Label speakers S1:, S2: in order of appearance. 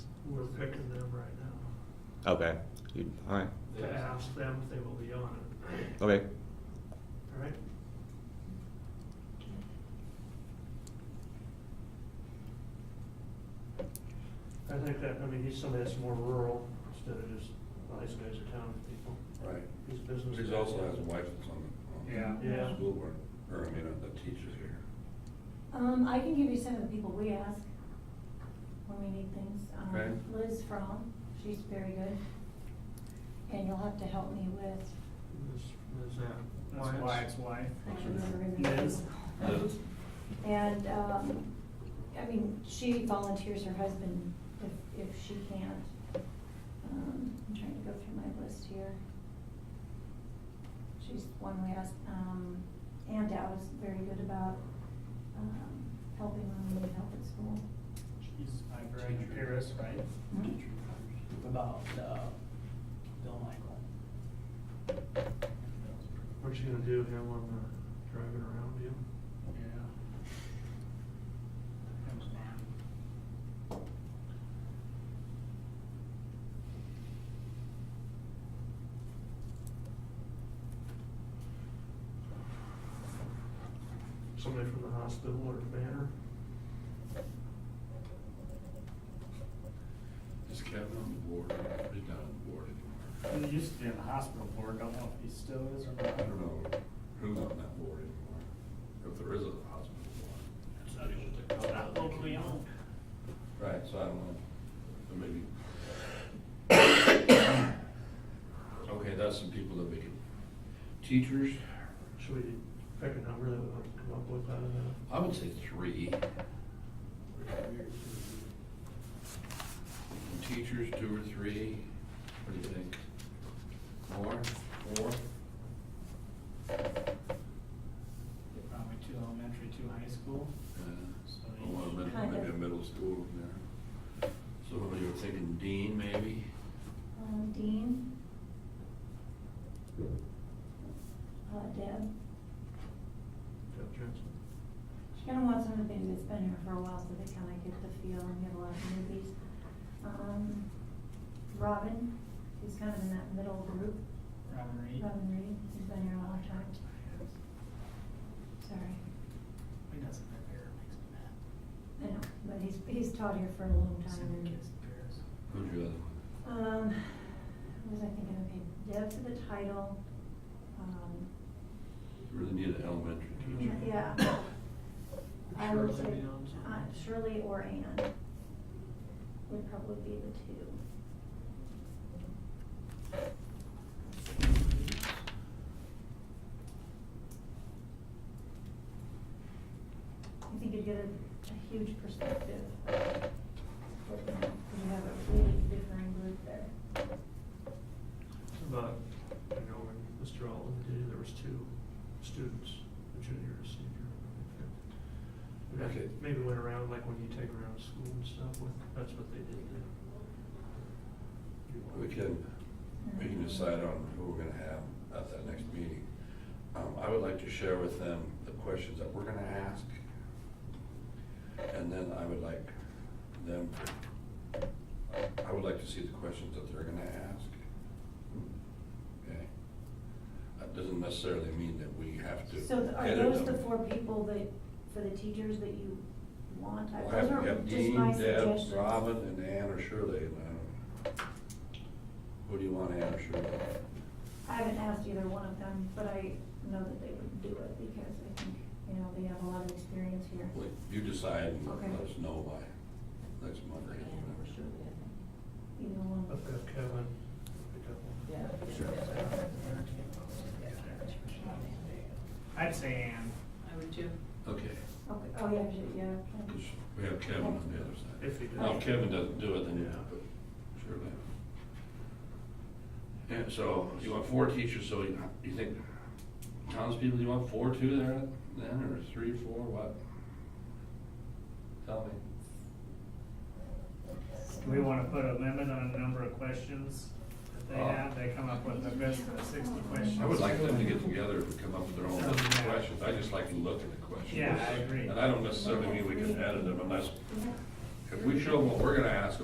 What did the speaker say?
S1: we're picking them right now
S2: Okay. You, all right.
S1: to ask them if they will be on it,
S2: Okay.
S1: all right? I think that, I mean, he's somebody that's more rural instead of just, well, these guys are town people,
S3: Right.
S1: these business.
S3: He's
S1: guys.
S3: also has a wife that's on the, on the
S1: Yeah.
S3: school board, or I mean, on the teachers here.
S4: Um, I can give you some of the people we ask when we need things. Um,
S3: Okay.
S4: Liz Fromm, she's very good. And you'll have to help me with,
S1: This, this, uh,
S5: That's why
S1: Wyatt's-
S5: it's why.
S4: I don't remember her name.
S5: Liz.
S3: Liz.
S4: And, um, I mean, she volunteers her husband if, if she can't. Um, I'm trying to go through my list here. She's one we asked, um, Ann Dow is very good about, um, helping when we need help at school.
S5: She's my grand Paris, right?
S4: Mhm.
S5: About, uh, Bill Michael.
S1: What you gonna do, him on the driving around you?
S5: Yeah. That was mine.
S1: Somebody from the hospital or Banner?
S3: Is Kevin on the board? He's not on the board anymore.
S5: He used to be in the hospital board, don't know if he still is or
S3: I
S5: not.
S3: don't know who's on that board anymore, if there is a hospital board.
S5: It's not even- it's not locally owned.
S3: Right, so I don't know, so maybe. Okay, that's some people that we can, teachers,
S1: Should we pick a number that we want to come up with out of that?
S3: I would say three. Teachers, two or three, what do you think? More, four?
S5: Probably two elementary, two high school.
S3: Uh, One middle,
S4: Kind
S3: maybe a
S4: of.
S3: middle school in there. So you were thinking dean, maybe?
S4: Um, Dean. Uh, Deb.
S1: Jeff Jensen?
S4: She kind of wants somebody that's been here for a while, so they kind of get the feel and get a lot of movies. Um, Robin, who's kind of in that middle group,
S5: Robin Reed.
S4: Robin Reed, who's been here a long time. Sorry,
S5: He doesn't have hair, it makes me mad.
S4: I know, but he's, he's taught here for a long time.
S5: Send the
S4: and-
S5: kids to Paris.
S3: Who's your other one?
S4: Um, what was I thinking of? Deb for the title, um,
S3: You Really need an elementary teacher.
S4: yeah. I would
S5: Shirley
S4: say,
S5: Jones.
S4: uh, Shirley or Ann would probably be the two. I think you'd get a, a huge perspective. You have a really different group there.
S1: But, I know when Mr. Allen did, there was two students, a junior and a senior. And that
S3: Okay.
S1: Maybe went around, like when you take around school and stuff, what- that's what they did then.
S3: We can, we can decide on who we're gonna have at that next meeting. Um, I would like to share with them the questions that we're gonna ask. And then I would like them, I would like to see the questions that they're gonna ask. Okay? That doesn't necessarily mean that we have to.
S4: So th- are
S3: edit
S4: those the
S3: them.
S4: four people that, for the teachers that you want? I-
S3: We'll
S4: Those
S3: have,
S4: are
S3: we have
S4: just my
S3: Dean, Deb,
S4: suggestions.
S3: Robin, and Ann or Shirley, and I don't, who do you want, Ann or Shirley?
S4: I haven't asked either one of them, but I know that they would do it because I think, you know, they have a lot of experience here.
S3: Wait, You decide and
S4: Okay.
S3: let us know by next Monday.
S6: Yeah, for sure,
S4: Either one.
S1: I've got Kevin, pick up one.
S6: yeah.
S3: Sure.
S5: I'd say Ann.
S6: I would too.
S3: Okay,
S4: Okay, oh, yeah, should- yeah. okay.
S3: 'cause we have Kevin on the other side.
S1: If he does.
S3: Now, if Kevin doesn't do it, then you
S1: Yeah.
S3: have to, Shirley. And so, you want four teachers, so you, you think townspeople, you want four too there then, or three, four, what? Tell me.
S5: Do we wanna put a limit on the number of questions that they
S3: Oh.
S5: have? They come up with a best of sixty questions.
S3: I would like them to get together and come up with their own list of
S5: Yeah.
S3: questions, I just like to look at the questions.
S5: Yeah, I agree.
S3: And I don't necessarily mean we can edit them unless,
S4: Yeah.
S3: if we show them what we're gonna ask